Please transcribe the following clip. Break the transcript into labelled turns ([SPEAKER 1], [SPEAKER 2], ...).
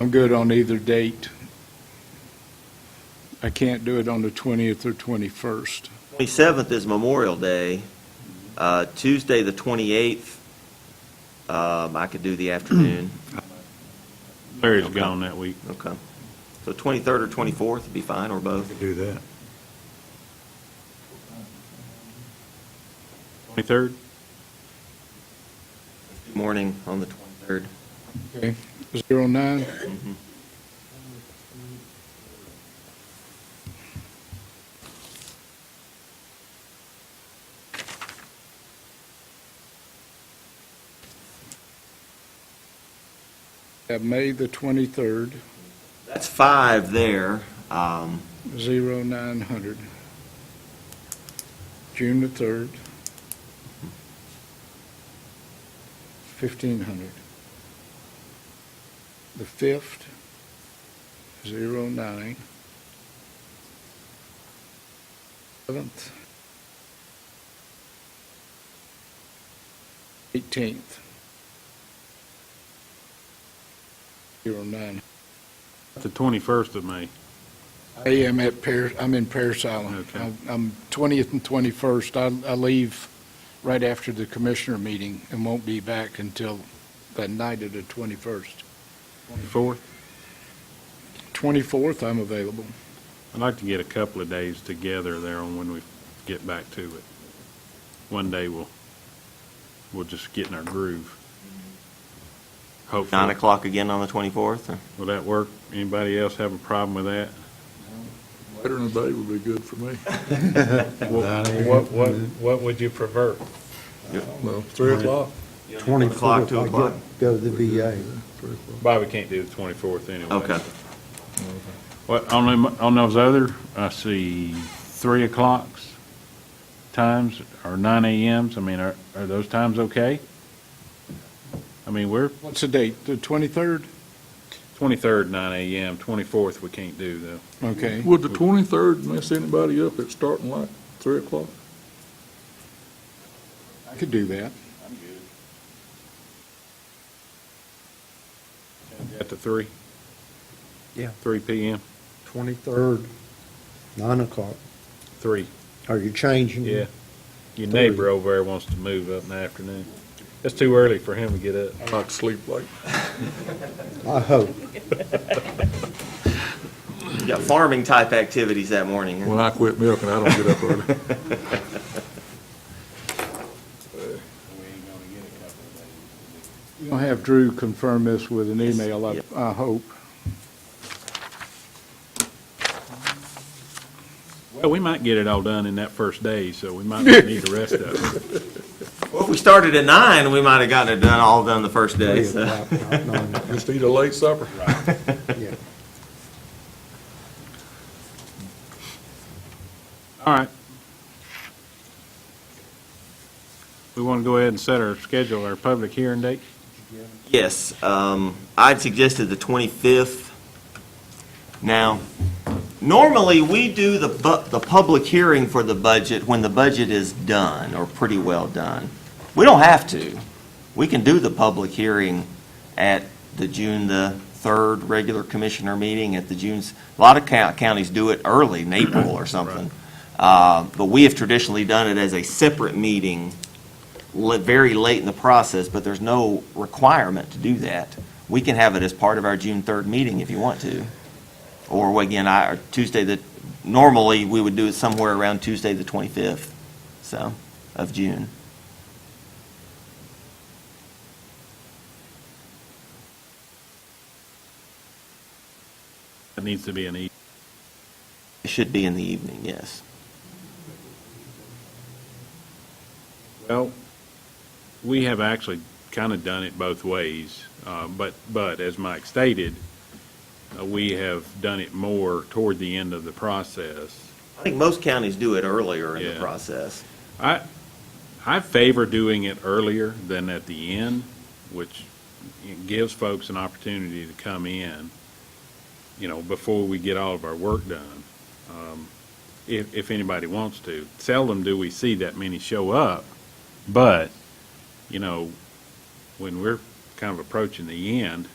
[SPEAKER 1] I'm good on either date. I can't do it on the 20th or 21st.
[SPEAKER 2] 27th is Memorial Day. Uh, Tuesday, the 28th, um, I could do the afternoon.
[SPEAKER 3] Larry's gone that week.
[SPEAKER 2] Okay. So 23rd or 24th would be fine, or both.
[SPEAKER 4] Do that.
[SPEAKER 3] 23rd?
[SPEAKER 2] Morning on the 23rd.
[SPEAKER 1] Okay, zero nine? Have May the twenty-third,
[SPEAKER 2] That's five there. Um,
[SPEAKER 1] zero nine hundred. June the third. Fifteen hundred. The fifth, zero nine. Seventh. Eighteenth. Zero nine.
[SPEAKER 3] The 21st of May.
[SPEAKER 1] I am at Paris, I'm in Paris Island.
[SPEAKER 3] Okay.
[SPEAKER 1] I'm- I'm 20th and 21st. I, I leave right after the commissioner meeting and won't be back until the night of the 21st.
[SPEAKER 3] 24th?
[SPEAKER 1] 24th, I'm available.
[SPEAKER 3] I'd like to get a couple of days together there on when we get back to it. One day we'll, we'll just get in our groove. Hopefully.
[SPEAKER 2] 9 o'clock again on the 24th? or-
[SPEAKER 3] Will that work? Anybody else have a problem with that?
[SPEAKER 5] Later in the day would be good for me.
[SPEAKER 3] What, what, what would you prefer?
[SPEAKER 5] Well, three o'clock.
[SPEAKER 4] Twenty
[SPEAKER 2] o'clock, two o'clock.
[SPEAKER 4] Go to the VA.
[SPEAKER 5] Three o'clock.
[SPEAKER 3] Bobby can't do the 24th anyway.
[SPEAKER 2] Okay.
[SPEAKER 3] What, on them, on those other, I see three o'clocks times or nine AMs, I mean, are, are those times okay? I mean, we're
[SPEAKER 1] What's the date? The 23rd?
[SPEAKER 3] twenty-third, nine AM, twenty-fourth, we can't do though.
[SPEAKER 1] Okay.
[SPEAKER 5] Would the twenty-third mess anybody up at starting like three o'clock?
[SPEAKER 1] I could do that.
[SPEAKER 3] At the three?
[SPEAKER 4] Yeah.
[SPEAKER 3] Three PM,
[SPEAKER 4] Twenty-third, nine o'clock.
[SPEAKER 3] three,
[SPEAKER 4] Are you changing?
[SPEAKER 3] yeah. Your
[SPEAKER 4] Mm-hmm. Three.
[SPEAKER 3] neighbor over there wants to move up in the afternoon. It's too early for him to get up.
[SPEAKER 5] I like to sleep late.
[SPEAKER 4] I hope.
[SPEAKER 2] You got farming-type activities that morning.
[SPEAKER 5] When I quit milking, I don't get up early.
[SPEAKER 1] You'll have Drew confirm this with an email, I,
[SPEAKER 2] Yep.
[SPEAKER 1] I hope.
[SPEAKER 3] Well, we might get it all done in that first day, so we might not need the rest of it.
[SPEAKER 2] Well, if we started at 9, we might have gotten it done, all done the first day, so.
[SPEAKER 5] Just eat a late supper.
[SPEAKER 4] Yeah.
[SPEAKER 3] All right. We want to go ahead and set our schedule, our public hearing date?
[SPEAKER 2] Yes, um, I'd suggested the 25th. Now, normally, we do the, bu- the public hearing for the budget when the budget is done, or pretty well done. We don't have to. We can do the public hearing at the June the 3rd regular commissioner meeting, at the June's, a lot of coun- counties do it early, in April or something. Uh, But we have traditionally done it as a separate meeting le- very late in the process, but there's no requirement to do that. We can have it as part of our June 3rd meeting if you want to. Or well, again, I, or Tuesday the, normally, we would do it somewhere around Tuesday the 25th, so, of June.
[SPEAKER 3] It needs to be an E.
[SPEAKER 2] It should be in the evening, yes.
[SPEAKER 3] Well, we have actually kind of done it both ways, uh, but, but as Mike stated, uh, we have done it more toward the end of the process.
[SPEAKER 2] I think most counties do it earlier in the
[SPEAKER 3] Yeah.
[SPEAKER 2] process.
[SPEAKER 3] I, I favor doing it earlier than at the end, which gives folks an opportunity to come in, you know, before we get all of our work done, um, if, if anybody wants to. Seldom do we see that many show up, but, you know, when we're kind of approaching the end,